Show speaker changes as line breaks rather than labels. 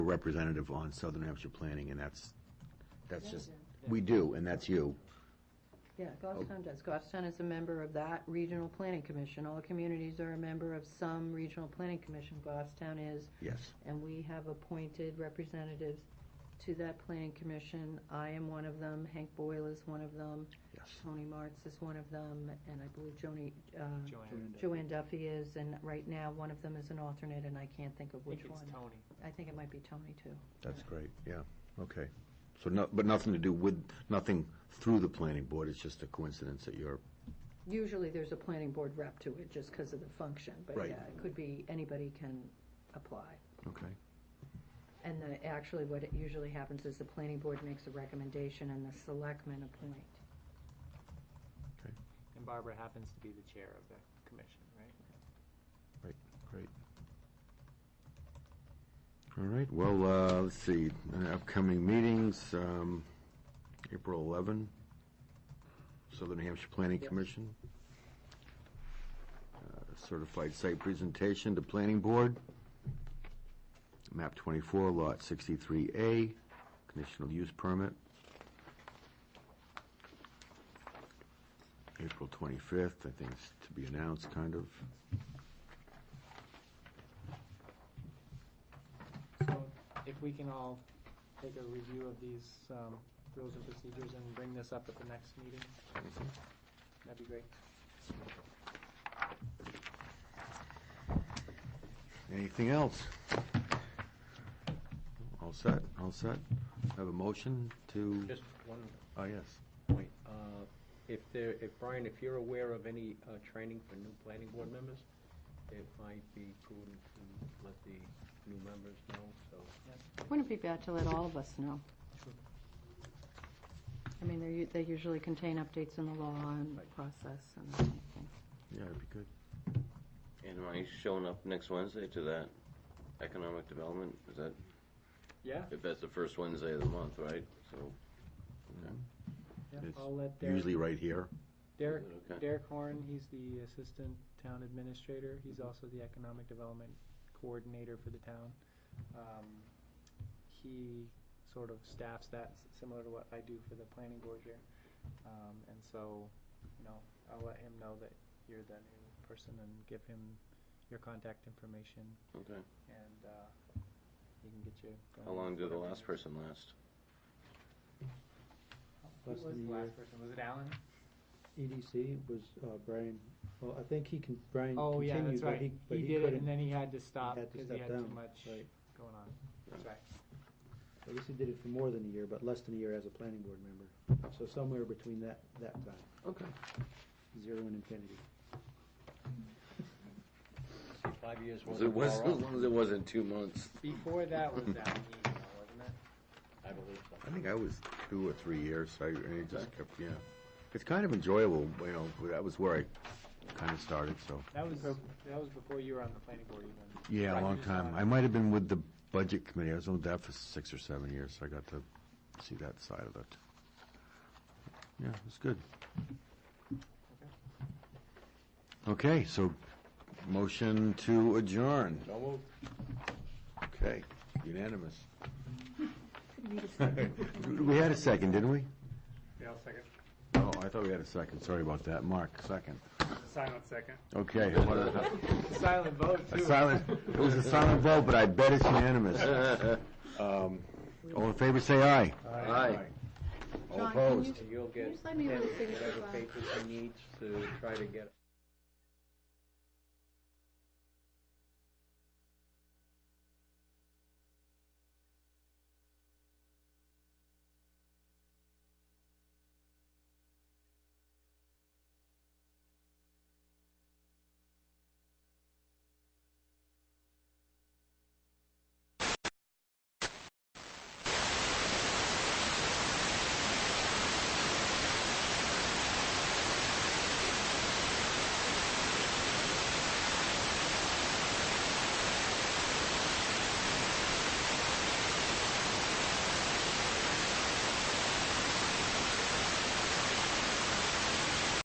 representative on Southern Hampshire Planning, and that's, that's just, we do, and that's you.
Yeah,
Oh.
Goffstown does. Goffstown is a member of that regional planning commission. All communities are a member of some regional planning commission. Goffstown is,
Yes.
and we have appointed representatives to that planning commission. I am one of them, Hank Boyle is one of them,
Yes.
Tony Martz is one of them, and I believe Joni, uh,
Joanne.
Joanne Duffy is, and right now, one of them is an alternate, and I can't think of
I think
which
it's
one.
Tony.
I think it might be Tony, too.
That's great, yeah, okay. So, no, but nothing to do with, nothing through the planning board, it's just a coincidence that you're,
Usually, there's a planning board rep to it, just because of the function, but
Right.
yeah, it could be, anybody can apply.
okay.
And the, actually, what it usually happens is the planning board makes a recommendation and the selectmen appoint.
And Barbara happens to be the chair of the commission, right?
Great. All right, well, uh, let's see, uh, upcoming meetings, um, April 11, Southern Hampshire Planning
Yes.
Commission. Uh, Certified site presentation to planning board. Map 24, lot 63A, conditional use permit. April 25th, I think it's to be announced, kind of.
So if we can all take a review of these um, rules and procedures and bring this up at the next meeting, that'd be great.
Anything else? All set, all set. Have a motion to,
Just one
oh, yes.
point. Uh, If there, if Brian, if you're aware of any uh, training for new planning board members, it might be prudent to let the new members know, so.
Wouldn't it be bad to let all of us know?
Sure.
I mean, they're, u- they usually contain updates in the law and
Right.
process and that kind of thing.
Yeah, it'd be good.
And am I showing up next Wednesday to that economic development? Is that,
Yeah?
if that's the first Wednesday of the month, right? So,
yeah,
It's
I'll let Derek,
Usually right here.
Derek,
Okay.
Derek Horn, he's the assistant town administrator. He's also the economic development coordinator for the town. Um, He sort of staffs that, s- similar to what I do for the planning board here. Um, And so, you know, I'll let him know that you're the new person and give him your contact information
okay.
and uh, he can get you. going
How long
with
did the
whatever.
last person last?
Who was the last person? Was it Alan?
EDC E was uh, Brian, well, I think he can, Brian
Oh, yeah,
continued,
that's
but
right.
he, but
He
he
did it and
couldn't.
then he had to stop
had to
because he had
step
too
down,
much
right.
going on. That's right.
I guess he did it for more than a year, but less than a year as a planning board member. So somewhere between that, that time,
Okay.
zero and infinity.
See, Five years
Was
wasn't
it, was,
far
as
off,
long as it wasn't two months.
Before that was that meeting, wasn't it?
I believe so.
I think I was two or three years, I, and it just kept, yeah. It's kind of enjoyable, you know, that was where I kind of started, so.
That was, that was before you were on the planning board even.
Yeah, a
Right,
long
you just
time.
saw it.
I might have been with the budget committee. I was on that for six or seven years, so I got to see that side of it. Yeah, it was good. Okay, so motion to adjourn.
So moved.
Okay, unanimous. We had a second, didn't we?
Yeah, I'll second.
Oh, I thought we had a second. Sorry about that. Mark, second.
Silent second.
Okay, how about a-
Silent vote
A
too.
silent, it was a silent vote, but I bet it's unanimous. Um, All in favor, say aye.
Aye.
All opposed?
And you'll get
just let me really
whatever
figure this out.
papers he needs to try to get